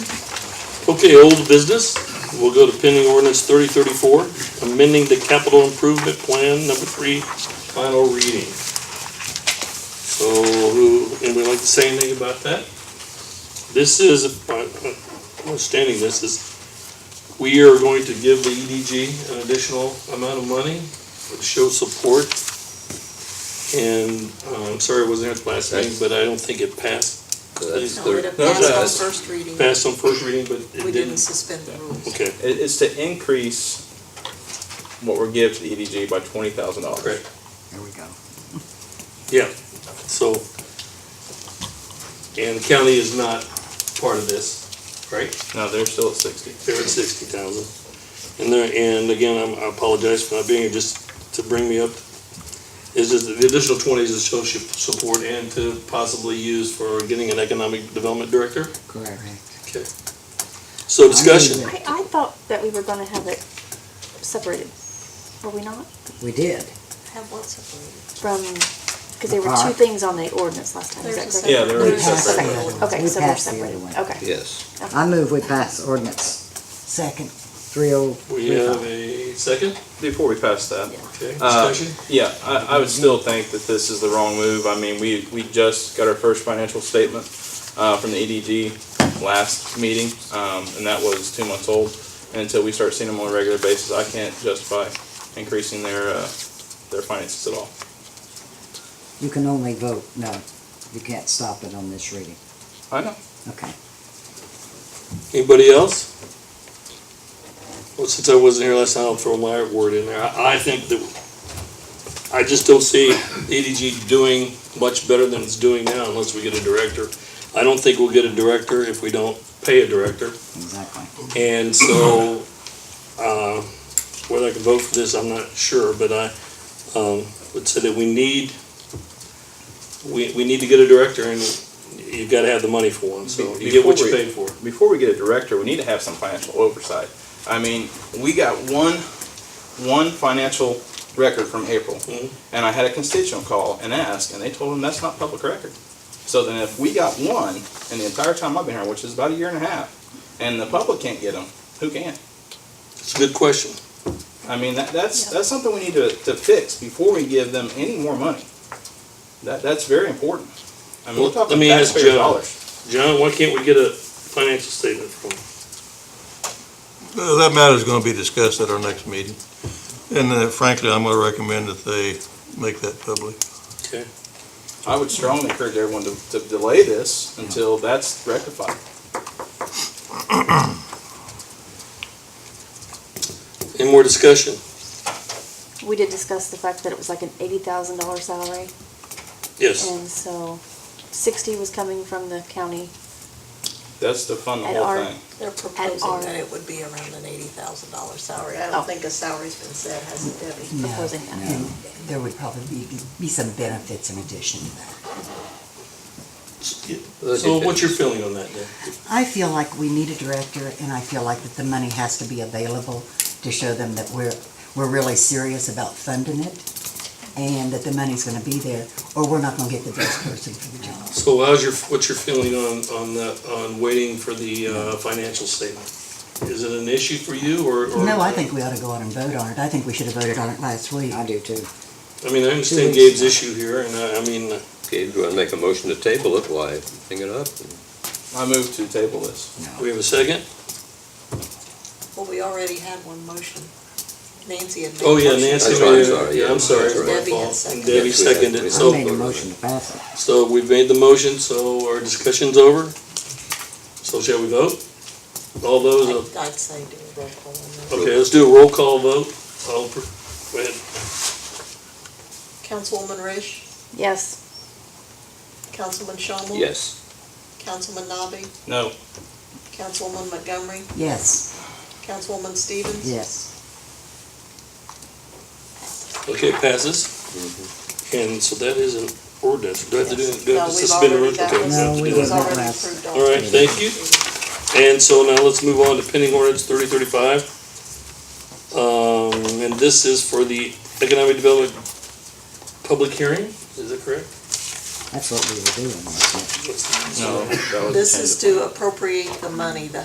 Okay, old business, we'll go to pending ordinance thirty thirty-four, amending the capital improvement plan, number three, final reading. So, who, anybody like to say anything about that? This is, uh, uh, understanding this is, we are going to give the EDG an additional amount of money to show support. And, uh, I'm sorry I wasn't there at the last meeting, but I don't think it passed, So that's No, third. It No, passed on that's- first reading. passed on first reading, but We it didn't didn't, suspend the rules. okay. It- It's to increase what we're giving to the EDG by twenty thousand dollars. Correct. There we go. Yeah, so, and the county is not part of this, right? No, they're still at sixty. They're at sixty thousand. And there, and again, I'm- I apologize for not being here, just to bring me up, is just that the additional twenty is to show su- support and to possibly use for getting an economic development director. Correct. Okay. So discussion, I, I thought that we were gonna have it separated, were we not? We did. Have what separated? From, because there were two Park. things on the ordinance last time, is that There's a correct? separate- Yeah, they're We already there's a passed the separated. separate other one. one. Okay, We so they're passed the other one. separated, okay. Yes, I move we pass ordinance second, three oh we three have five. a second, Before we pass that, okay, Uh, discussion, yeah, I, I would still think that this is the wrong move. I mean, we, we just got our first financial statement, uh, from the EDG last meeting, um, and that was two months old. And Until we start seeing them on a regular basis, I can't justify increasing their, uh, their finances at all. You can only vote, no, you can't stop it on this reading. I know. Okay. anybody else? Well, since I wasn't here last time, I'll throw my word in there. I, I think that, I just don't see EDG doing much better than it's doing now unless we get a director. I don't think we'll get a director if we don't pay a director. Exactly. And so, uh, whether I can vote for this, I'm not sure, but I, um, would say that we need, we, we need to get a director and you've gotta have the money for one, so you get what you pay for. before we get a director, we need to have some financial oversight. I mean, we got one, one financial record from April, Mhm. and I had a constituent call and ask, and they told him that's not public record. So then, if we got one in the entire time I've been here, which is about a year and a half, and the public can't get them, who can? It's a good question. I mean, that, that's that's something we need to, to fix before we give them any more money. That that's very important. I mean, Well, we're let talking me ask taxpayer Joe. dollars. John, why can't we get a financial statement from? Uh, That matter's gonna be discussed at our next meeting. And uh, frankly, I'm gonna recommend that they make that public. Okay. I would strongly encourage everyone to, to delay this until that's rectified. Any more discussion? We did discuss the fact that it was like an eighty thousand dollar salary, Oh. Yes. and so sixty was coming from the county. That's to fund the At whole our- thing. They're proposing our- that it would be around an eighty thousand dollar salary. I Oh. don't think a salary's been set, has it, Debbie? No, Opposing that. no. There would probably be, be some benefits in addition to that. So what's your feeling on that then? I feel like we need a director, and I feel like that the money has to be available to show them that we're, we're really serious about funding it, and that the money's gonna be there, or we're not gonna get the best person for the job. So how's your, what's your feeling on, on the, on waiting for the, uh, financial statement? Is it an issue for you or? or- No, I think we ought to go on and vote on it. I think we should have voted on it last week. I do too. I mean, I understand Gabe's issue here and I, I mean, okay, do you want to make a motion to table it, why, hang it up? I move to table this. we have a second? Well, we already had one motion. Nancy had made. Oh, yeah, motion. Nancy. That's made right, I'm it. sorry, Yeah, yeah. I'm sorry, That's it's my right. Debbie fault. has And seconded. Debbie Yes, we have- seconded we it, have. I made so, a motion to pass it. so we've made the motion, so our discussion's over. So shall we vote? All those, I'd I'd say do a roll call on that. okay, let's do a roll call vote. All, per- go ahead. Councilwoman Rish, Yes, Councilman Shomel. Yes, Councilman Nabi, No, Councilwoman Montgomery, Yes, Councilwoman Stevens. yes. Okay, passes. And so that is an ordinance. Do I have to do, do I No, have to we've suspend the already rules? got Okay, we this. have to No, we do It was that. didn't. already Last- approved. All right, thank you. And so now let's move on to pending ordinance thirty thirty-five. Um, and this is for the economic development public hearing, is that correct? That's what we were doing, wasn't it? What's the- no. that was This intended. is to appropriate the money, the